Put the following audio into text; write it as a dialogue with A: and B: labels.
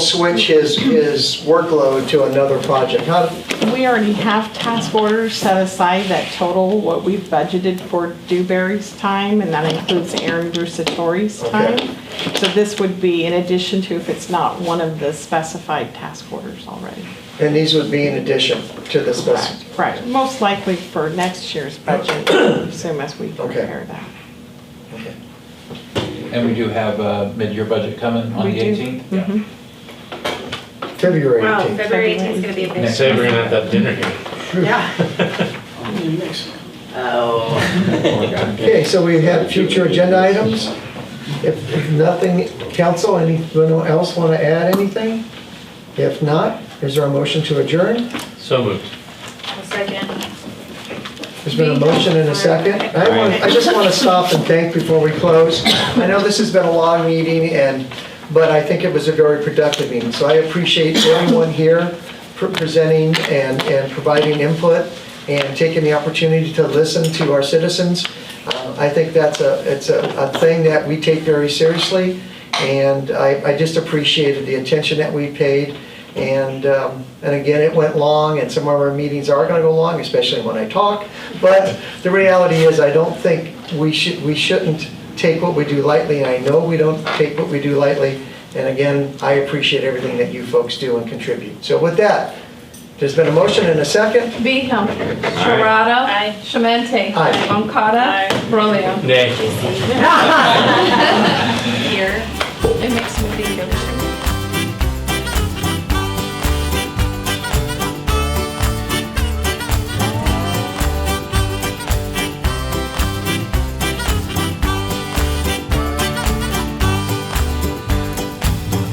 A: switch his, his workload to another project? How,
B: We already have task orders set aside that total what we've budgeted for Dewberry's time, and that includes Aaron Brusatori's time.
A: Okay.
B: So this would be in addition to if it's not one of the specified task orders already.
A: and these would be in addition to the specific.
B: Right, most likely for next year's budget, assume as we prepare that.
A: Okay.
C: And we do have a mid-year budget coming on
B: We
C: the
B: do.
C: 18th?
B: Mhm.
A: February
D: Wow,
A: 18th.
D: February 18th is gonna be a big.
E: Say we're gonna have that dinner here.
D: Yeah.
A: Okay, so we have future agenda items. If if nothing, council, anyone else want to add anything? If not, is there a motion to adjourn?
E: So moved.
D: A second.
A: There's been a motion and a second. I want, I just want to stop and thank before we close. I know this has been a long meeting and, but I think it was a very productive meeting. So I appreciate everyone here for presenting and, and providing input and taking the opportunity to listen to our citizens. Uh, I think that's a, it's a, a thing that we take very seriously. And I, I just appreciated the attention that we paid. And, um, and again, it went long and some of our meetings are gonna go long, especially when I talk. But the reality is, I don't think we should, we shouldn't take what we do lightly. I know we don't take what we do lightly. And again, I appreciate everything that you folks do and contribute. So with that, there's been a motion and a second.
F: Beeham. Sharada.
D: Aye.
F: Shemente.
A: Aye.
F: Moncada. Brolio.
E: Nay.
D: Here.
F: It makes me feel.